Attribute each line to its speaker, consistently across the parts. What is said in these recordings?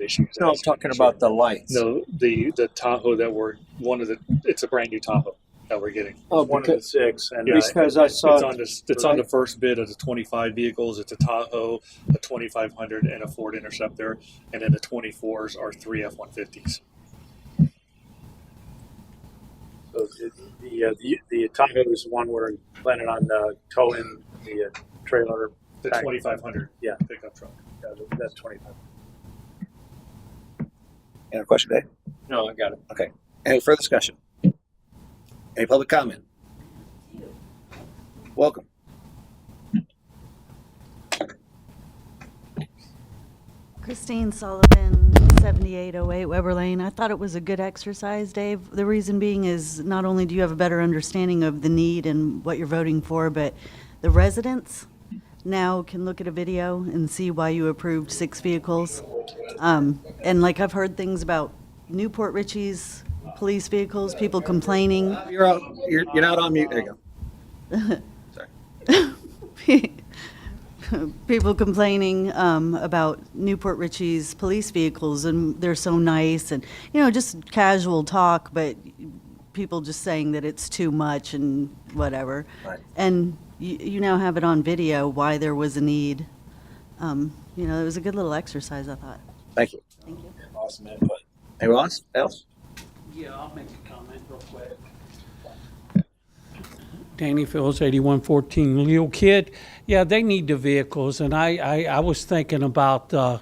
Speaker 1: issues.
Speaker 2: No, I'm talking about the lights.
Speaker 1: No, the the Tahoe that we're one of the it's a brand new Tahoe that we're getting.
Speaker 2: Oh,
Speaker 3: One of the
Speaker 2: because,
Speaker 3: six, and uh,
Speaker 2: because I saw
Speaker 1: It's on this. It's on the first bid of the 25 vehicles. It's a Tahoe, a 2500, and a Ford Interceptor, and then the 24s are three F150s.
Speaker 3: so the the, uh, the the Tahoe is the one we're planning on uh, towing the uh, trailer.
Speaker 1: The
Speaker 3: Right.
Speaker 1: 2500
Speaker 3: Yeah.
Speaker 1: pickup truck.
Speaker 3: Uh, that's twenty-five.
Speaker 4: Any other question, Dave?
Speaker 2: No, I got it.
Speaker 4: Any further discussion? Any public comment? Welcome.
Speaker 5: Christine Sullivan, 7808 Weber Lane. I thought it was a good exercise, Dave. The reason being is not only do you have a better understanding of the need and what you're voting for, but the residents now can look at a video and see why you approved six vehicles. Um, And like, I've heard things about Newport Richie's police vehicles, people complaining.
Speaker 4: You're out. You're, you're not on mute. There you go.
Speaker 5: people complaining um, about Newport Richie's police vehicles and they're so nice and you know just casual talk, but people just saying that it's too much and whatever.
Speaker 4: Right.
Speaker 5: And you, you now have it on video why there was a need. Um, you know, it was a good little exercise, I thought.
Speaker 4: Thank you.
Speaker 5: Thank you.
Speaker 3: Awesome input.
Speaker 4: Anyone else? Else?
Speaker 6: Yeah, I'll make a comment real quick. Danny Phillips, eighty-one fourteen Leo Kid. Yeah, they need the vehicles, and I, I, I was thinking about, uh,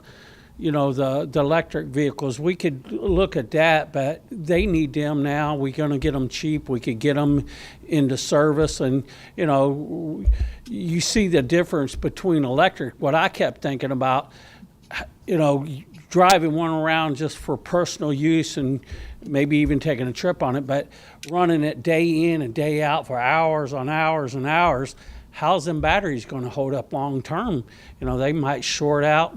Speaker 6: you know, the, the electric vehicles. We could look at that, but they need them now. We're gonna get them cheap. We could get them into service, and, you know, you see the difference between electric. What I kept thinking about, you know, driving one around just for personal use and maybe even taking a trip on it, but running it day in and day out for hours on hours and hours, how's them batteries going to hold up long term? You know, they might short out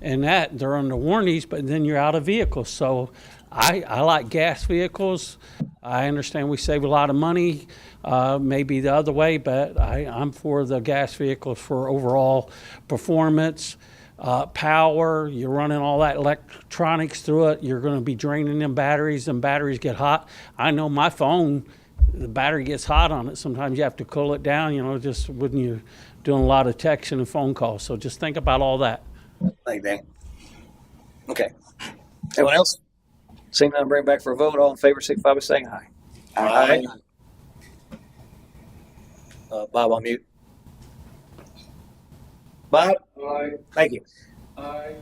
Speaker 6: and that they're under warranties, but then you're out of vehicles. So I, I like gas vehicles. I understand we save a lot of money, uh, maybe the other way, but I, I'm for the gas vehicles for overall performance uh, power, you're running all that electronics through it, you're going to be draining them batteries, and batteries get hot. I know my phone, the battery gets hot on it. Sometimes you have to cool it down, you know, just when you're doing a lot of texting and phone calls. So just think about all that.
Speaker 4: Thank you, Dan. Okay. Anyone else? Seeing none, bring it back for a vote. All in favor, signify by saying aye. Aye. Uh, Bob on mute. Bob?
Speaker 3: Aye.
Speaker 4: Thank you.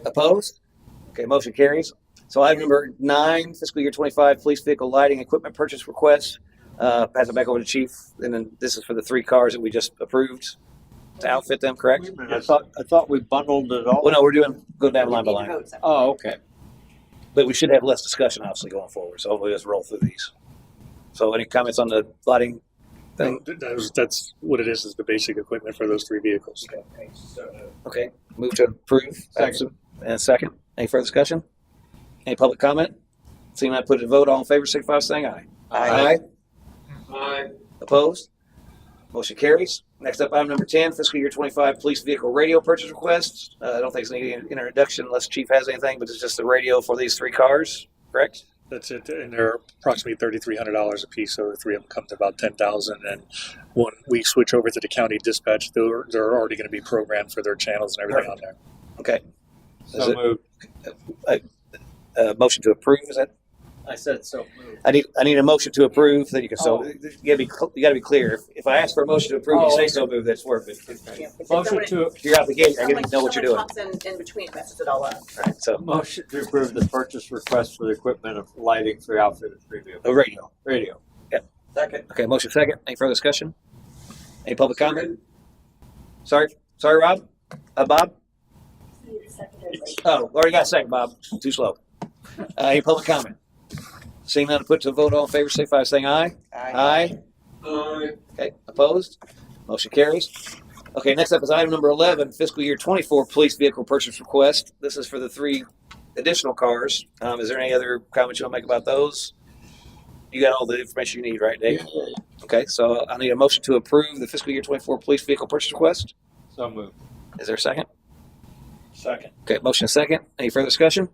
Speaker 4: Opposed? Okay, motion carries. So item number nine, fiscal year twenty-five, police vehicle lighting equipment purchase request. Uh, pass it back over to chief, and then this is for the three cars that we just approved to outfit them, correct?
Speaker 3: I thought I thought we bundled it all.
Speaker 4: Well, no, we're doing, go down line by line.
Speaker 3: Oh, okay.
Speaker 4: But we should have less discussion, obviously, going forward. So hopefully, let's roll through these. So, any comments on the lighting thing?
Speaker 1: Th- that was- that's what it is. Is the basic equipment for those three vehicles.
Speaker 4: Okay, move to approve. Second. And second. Any further discussion? Any public comment? Seeing none, put it to vote. All in favor, signify by saying aye. Aye. Opposed? Motion carries. Next up, item number ten, fiscal year twenty-five police vehicle radio purchase request. Uh, I don't think it's any introduction unless chief has anything, but it's just the radio for these three cars, correct?
Speaker 1: That's it, and they're approximately thirty-three hundred dollars a piece, so the three of them come to about ten thousand. And when we switch over to the county dispatch, they're they're already going to be programmed for their channels and everything on there.
Speaker 4: Okay, Is
Speaker 3: So
Speaker 4: it-
Speaker 3: moved.
Speaker 4: uh, motion to approve, is that
Speaker 3: I said so moved.
Speaker 4: I need, I need a motion to approve, then you can, so,
Speaker 3: Oh.
Speaker 4: you gotta be, cl- you gotta be clear. If- If I ask for a motion to approve, you
Speaker 3: Oh,
Speaker 4: say
Speaker 3: okay.
Speaker 4: so move, that's worth it.
Speaker 7: Yeah, because
Speaker 3: Motion
Speaker 7: someone-
Speaker 3: to
Speaker 4: If you're out the gate, I
Speaker 7: someone-
Speaker 4: gotta know what you're
Speaker 7: someone
Speaker 4: doing.
Speaker 7: talks in, in between, messes it all up.
Speaker 4: Alright, So,
Speaker 3: motion to approve the purchase request for the equipment of lighting for the outfit of three vehicles.
Speaker 4: a Oh, radio.
Speaker 3: Radio.
Speaker 4: Second. Okay, motion second. Any further discussion? Any public comment? Sorry, sorry, Rob? Uh, Bob? Oh, already got a second, Bob. Too slow. Uh, any public comment? Seeing none, put to a vote. All in favor, signify by saying aye. Aye. Okay, opposed? Motion carries. Okay, next up is item number 11, fiscal year 24 police vehicle purchase request. This is for the three additional cars. Um, is there any other comments you want to make about those? You got all the information you need, right, Dave? Okay, so I need a motion to approve the fiscal year 24 police vehicle purchase request.
Speaker 3: So moved.
Speaker 4: Is there a second?
Speaker 3: Second.
Speaker 4: Okay, motion and second. Any further discussion?